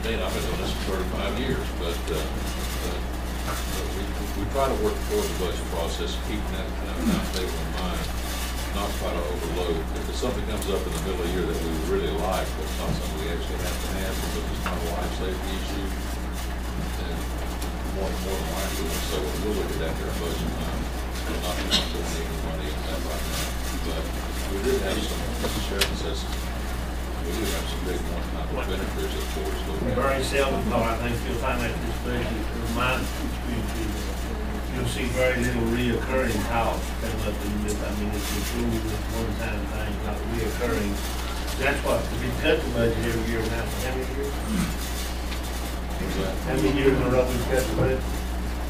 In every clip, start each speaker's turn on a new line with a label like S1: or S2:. S1: state, I've been doing this for thirty-five years, but, uh, uh, but we, we try to work toward the budget process, keeping that kind of timetable in mind, not try to overload. If there's something comes up in the middle of the year that we would really like, but it's not something we actually have to have, because it's not a life safety issue, then more, more than likely, we'll say, well, we'll look at that during budget time. We're not going to put any money in that right now, but we did have some, Mr. Sheriff says, we do have some big one-time benefits, of course, looking at.
S2: Very seldom, though, I think you'll find that this budget, in my experience, you'll see very little reoccurring costs come up in this. I mean, it's included with one-time thing, not reoccurring. That's what, we cut the budget every year now, for how many years? How many years in a row we cut the budget?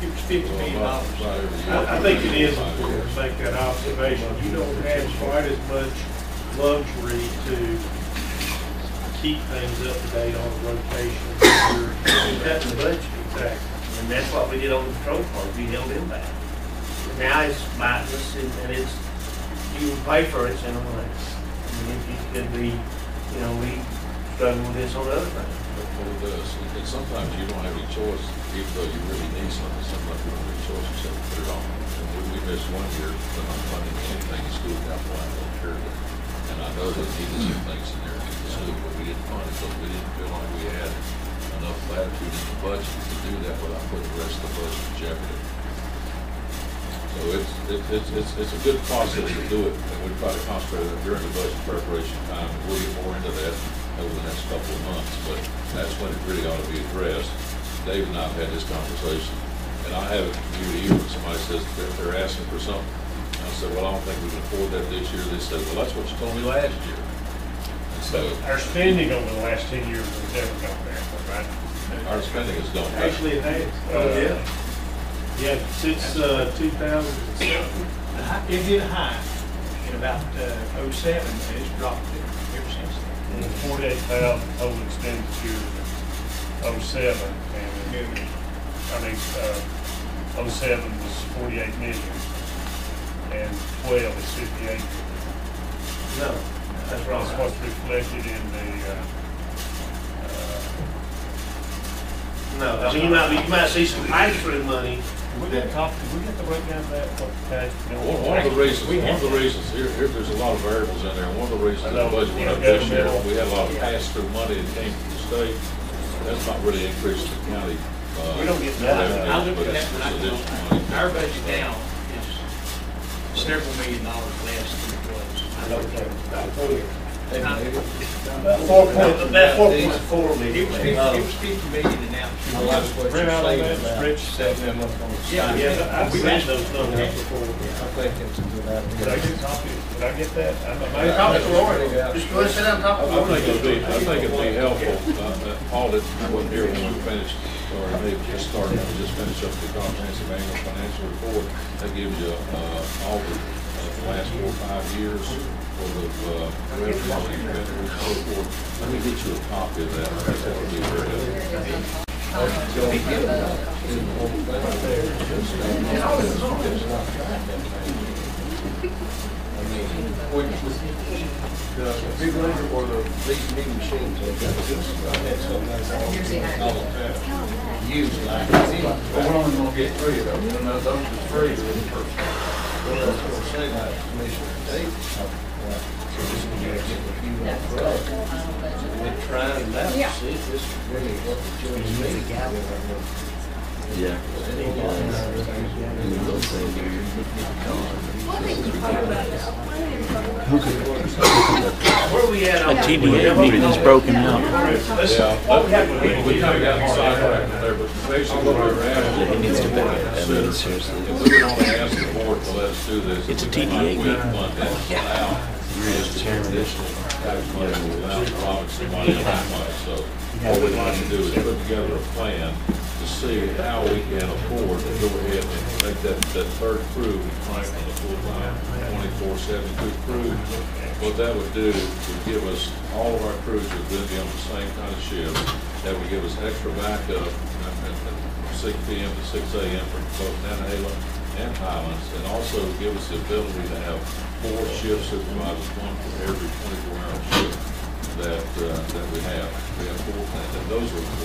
S2: It's fifty million
S1: Well,
S2: dollars.
S1: about every year.
S2: I, I think it is important to make that observation. You don't have quite as much luxury to keep things up to date on rotation. You're you're cutting the budget, exactly. And that's what we did on the patrol part, we held him back. Now it's mindless and and it's, you will pay for it in a way. I mean, it- it could be, you know, we struggle with this on other things.
S1: That's what it does. And- And sometimes you don't have any choice, even though you really need something, sometimes you don't have any choice except to put it on. And we, we missed one year, but I'm funding anything in school capital, I'm not sure. And I know that needed some things in there in the school, but we didn't fund it, so we didn't feel like we had enough latitude in the budget to do that without putting the rest of the budget in jeopardy. So it's, it's, it's, it's, it's a good process to do it, and we try to concentrate on it during the budget preparation time. We'll get more into that over the next couple of months, but that's when it really ought to be addressed. Dave and I have had this conversation, and I haven't, you to you, when somebody says they're, they're asking for something. And I said, well, I don't think we can afford that this year. They said, well, that's what you told me last year. And so
S3: Our spending over the last ten years has never gone backward, right?
S1: our spending has gone back.
S2: Actually, it has.
S3: Oh, yeah?
S2: Yeah, since, uh, two thousand and seven.
S4: The hi- It did high in about uh, '07, and it's dropped ever since then.
S3: Forty-eight thousand total expenditure, oh seven, and, it- I mean, uh, oh seven was forty-eight million, and twelve is fifty-eight.
S2: No, that's wrong.
S3: That's what's reflected in the, uh, uh,
S2: No, I mean, you might, be- you might see some pass-through money.
S3: we got a copy, we got the breakdown of that, what the tax.
S1: One one of the reasons, one of the reasons, here, here, there's a lot of variables in there, and one of the reasons the budget went up this year, we had a lot of pass-through money that came from the state. That's not really increased the county, uh.
S3: We don't get that.
S1: revenues,
S4: I looked
S1: but
S4: at that
S1: it's-
S4: when I
S1: it's
S4: go,
S1: additional money.
S4: on. our budget now is several million dollars less than it was.
S2: Four point, about four point four
S4: It was,
S2: million.
S4: fif- it was fifty million and now it's.
S5: I like what
S3: Print
S5: you're
S3: out all
S5: saying
S3: that,
S5: about,
S3: Rich said that was on.
S4: Yeah,
S2: Yeah,
S4: yeah,
S2: I've
S4: we
S2: seen those numbers
S4: actually.
S2: before.
S5: I think it's a good
S3: Did I
S5: idea.
S3: get a copy? Did I get that? I'm amazed.
S5: I
S2: Talk to
S5: think
S2: Lori.
S5: it's a good
S2: Just go and sit down and talk to
S1: I
S2: Lori.
S1: think it'd be, I think it'd be helpful, uh, that Paul didn't, wasn't here when we finished, or maybe just started, we just finished up the comprehensive annual financial report. That gives you, uh, all the, uh, the last four, or five years worth of, uh, revenue and revenue and so forth. Let me get you a copy of that, I think that would be very helpful.
S5: idea. The big one or the big meeting machines, I guess. I had some that's all- all the time. Used like. But we're only gonna get three of them, and those are three of them first. Well, that's what I'm saying, like, Commissioner Davis. So this is gonna get a few more brothers. We're trying now to see if this is really what the joint's meeting.
S6: Yeah.
S2: Where we at on?
S6: A TDA meeting is broken out.
S1: Yeah, but we, we kind of got sidetracked there, but basically what we're asking.
S6: It needs to be, I mean,
S1: If
S6: seriously.
S1: we would only ask the board to let us do this.
S6: It's a
S1: we might
S6: TDA
S1: win
S6: meeting.
S1: one that allow this additional tax money to allow Robinson money and that money. So what we'd like to do is put together a plan to see how we can afford to go ahead and make that, that third crew, Franklin, a full-time, twenty-four seven good crew, what that would do would give us, all of our crews would then be on the same kind of shift. That would give us extra backup uh, at at six P M to six A M for both Nantahala and Highlands. And also give us the ability to have four shift supervisors, one for every twenty-four hour shift. that, uh, that we have. We have four, and those were the